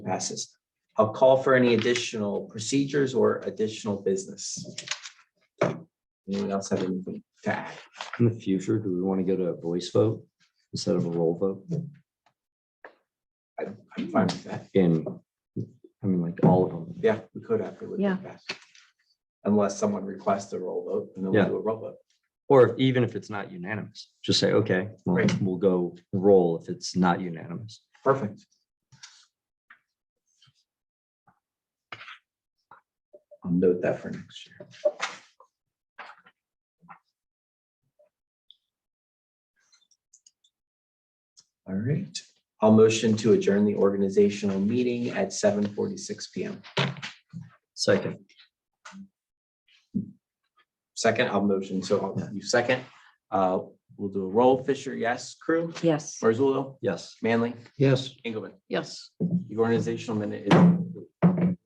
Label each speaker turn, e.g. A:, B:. A: passes. I'll call for any additional procedures or additional business. Anyone else have anything to add?
B: In the future, do we want to go to a voice vote instead of a roll vote?
A: I'm fine with that.
B: In, I mean, like all of them.
A: Yeah, we could have. it would be
C: Yeah.
A: best. Unless someone requests a roll vote and then we'll
B: Yeah.
A: do a roll vote.
B: Or if- even if it's not unanimous, just say, okay, well,
A: Right.
B: we'll go roll if it's not unanimous.
A: Perfect. I'll note that for next year. All right, I'll motion to adjourn the organizational meeting at seven forty-six PM.
B: Second,
A: Second, I'll motion, so I'll- you second. Uh, We'll do a roll. Fisher, yes. Crew,
C: Yes.
A: Marzullo,
B: yes.
A: Manley,
B: Yes.
A: Engelman.
C: Yes.
A: The organizational minute is